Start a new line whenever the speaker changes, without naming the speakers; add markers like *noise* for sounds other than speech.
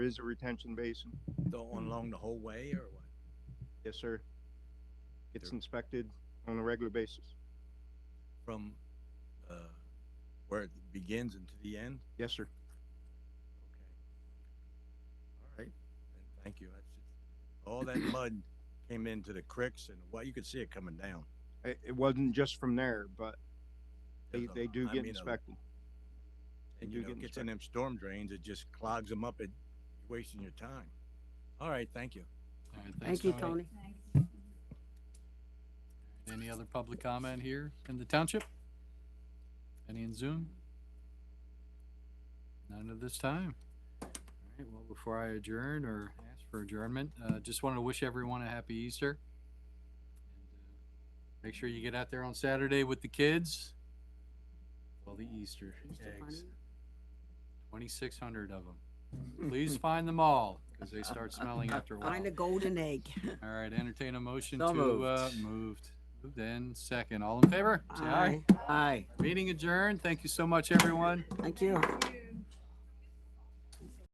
There is a retention basin.
The- along the whole way or what?
Yes, sir. It's
There-
inspected on a regular basis.
From, uh, where it begins and to the end?
Yes, sir.
Okay. All right, and thank you. That's just,
*clears throat*
all that mud came into the cricks and well, you could see it coming down.
It, it wasn't just from there, but they,
There's a-
they do
I
get
mean, uh, a-
inspected. They
And
do
you know,
get
it gets in them storm drains, it just clogs them up, it, you're wasting your time. All right, thank you.
All right, thanks,
Thank you, Tony.
Any other public comment here in the township? Any in Zoom? None at this time. All right, well, before I adjourn or ask for adjournment, uh, just wanted to wish everyone a happy Easter. And uh, Make sure you get out there on Saturday with the kids. Well, the Easter
Mr.
eggs,
Funny.
twenty-six hundred of them. Please find them all, because they start smelling after a while.
Find a golden egg.
All right, entertain a motion
So
to, uh, moved. Moved and second. All in favor? Say aye.
Aye.
Aye.
Meeting adjourned. Thank you so much, everyone.
Thank you.
Thank you.